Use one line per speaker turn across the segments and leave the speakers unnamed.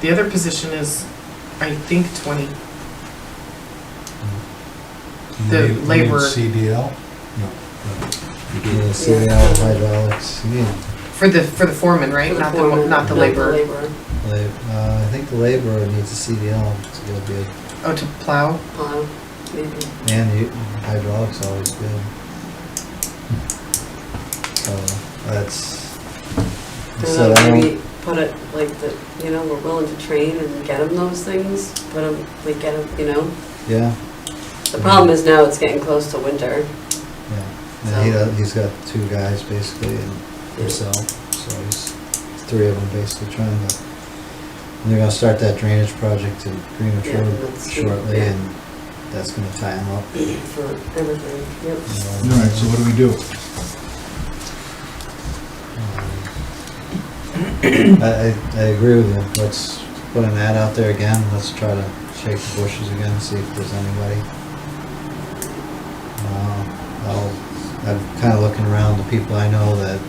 The other position is, I think, 20. The
You need- you need
labor-
CDL? No.
Yeah, CDL, hydraulics, yeah.
For the, for the foreman,
For
right?
the
Not the,
foreman,
not the laborer.
La- uh, I think the laborer needs a CDL, it's real good.
Oh, to plow?
plow, um, maybe.
Man, you, hydraulics always good. So, that's, so
Don't know,
I
maybe
don't,
put it like that, you know, we're willing to train and get them those things, but um, we get them, you know.
yeah,
The problem is now it's getting close to winter.
yeah. And he,
So-
does- he's got two guys basically and himself, so he's, three of them basically trying to. And they're gonna start that drainage project at Greenwich
Yeah,
Road
that's-
shortly
yeah.
and that's gonna tie him up.
for everything, yep.
you know.
All right, so what do we do?
I, Um, I, I agree with you. Let's put an ad out there again. Let's try to shake the bushes again, see if there's anybody. Uh, I'll, I'm kind of looking around the people I know that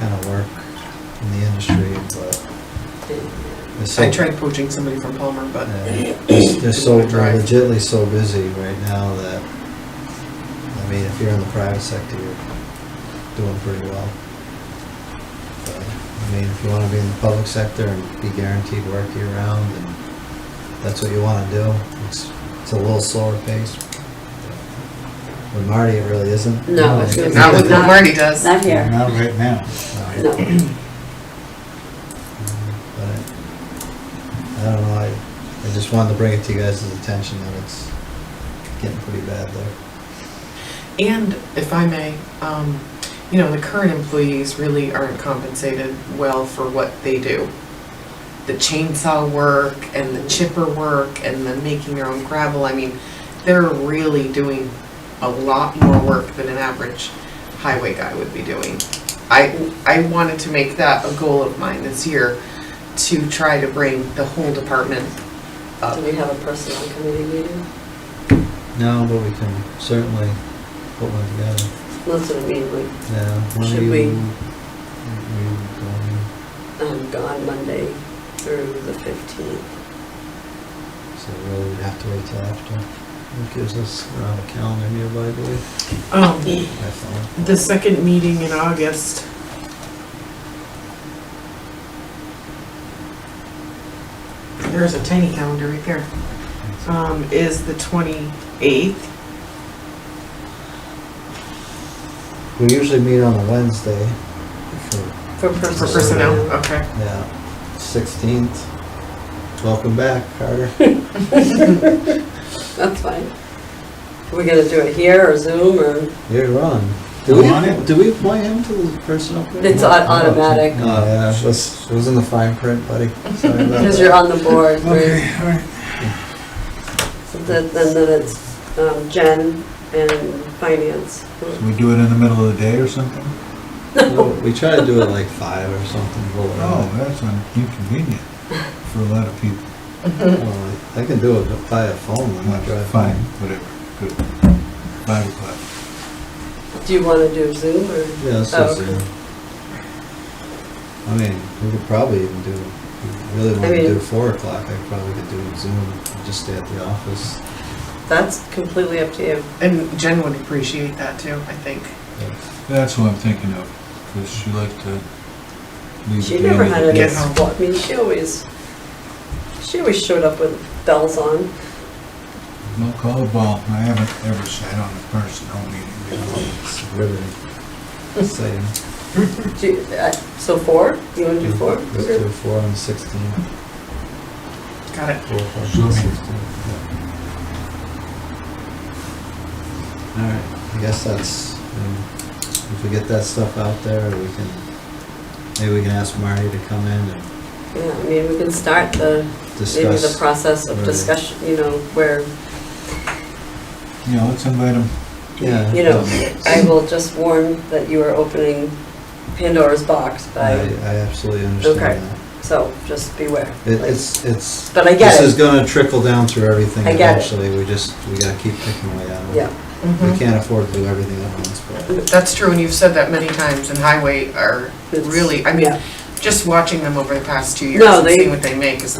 kind of work in the industry, but. it's so-
I tried poaching somebody from Palmer, but
yeah, They're they're so,
Didn't
they're
drive.
legitly so busy right now that, I mean, if you're in the private sector, you're doing pretty well. But, I mean, if you wanna be in the public sector and be guaranteed work year round, and that's what you wanna do, it's, it's a little slower pace. With Marty, it really isn't.
No, it's
Really.
not with what
Not-
Marty does.
Not here,
Not right now.
No.
no.
But I I don't know, I, I just wanted to bring it to you guys' attention that it's getting pretty bad there.
And if I may, um, you know, the current employees really aren't compensated well for what they do. The chainsaw work and the chipper work and the making their own gravel, I mean, they're really doing a lot more work than an average highway guy would be doing. I, I wanted to make that a goal of mine this year, to try to bring the whole department up.
Do we have a personnel committee meeting?
No, but we can certainly put one together.
That's what I mean, like,
Yeah. when are
Should
you-
we-
you going?
I'm gone Monday through the fifteenth.
So really, we'd have to wait till after. It gives us around a calendar nearby, I believe,
Um,
by phone.
the second meeting in August, there's a tiny calendar right there, um, is the twenty-eighth.
We usually meet on a Wednesday for,
For
For
personnel.
personnel, okay.
yeah, sixteenth. Welcome back, Carter.
That's fine. Are we gonna do it here or Zoom or?
You're wrong.
Do we- Want it?
do we appoint him to the personal?
It's au- automatic.
Uh,
Oh, yeah, it was, it was in the fine print, buddy. Sorry about
Because
that.
you're on the board, right?
Okay, all right.
So that- Then, then it's um, Jen and finance.
So we do it in the middle of the day or something?
Well, We try to do it like five or something, roll it
Oh,
out.
that's un- inconvenient for a lot of people.
Well, I can do it via phone when I drive.
Fine, whatever, good. Five o'clock.
Do you want to do Zoom or?
Yeah, that's
Oh,
just,
okay.
I mean, we could probably even do, if you really want to
mean-
do four o'clock, I probably could do it Zoom, just stay at the office.
That's completely up to you.
And Jen would appreciate that too, I think.
That's who I'm thinking of, because she liked to leave.
She
at the end
never
of
had
the
a
day.
Yes.
I mean, she always, she always showed up with bells on.
No, call the ball. I haven't ever sat on a personnel meeting before.
It's really exciting.
Do you- uh, So four? You want to do four?
Let's do four on the sixteenth.
Got it.
Four, five,
Sure.
six, six, yeah. All right, I guess that's, um, if we get that stuff out there, we can, maybe we can ask Marty to come in and
Yeah, I mean, we can start the, maybe the
discuss.
process of
Right.
discussion, you know, where,
Yeah, let's invite him.
Yeah,
you know,
um,
I will just warn that you are opening Pandora's box
I,
by,
I absolutely
Okay.
understand that.
so just beware.
It, it's, it's,
But I
this
get
is
it,
gonna trickle down through everything
I get it.
eventually, we just, we gotta keep picking away at it.
yeah. Mm-hmm.
We
Mhm.
can't afford to do everything at once, but.
That's true, and you've said that many times, and highway are
It's-
really, I mean,
yeah.
Just watching them over the past two years
No,
and
they-
seeing what they make is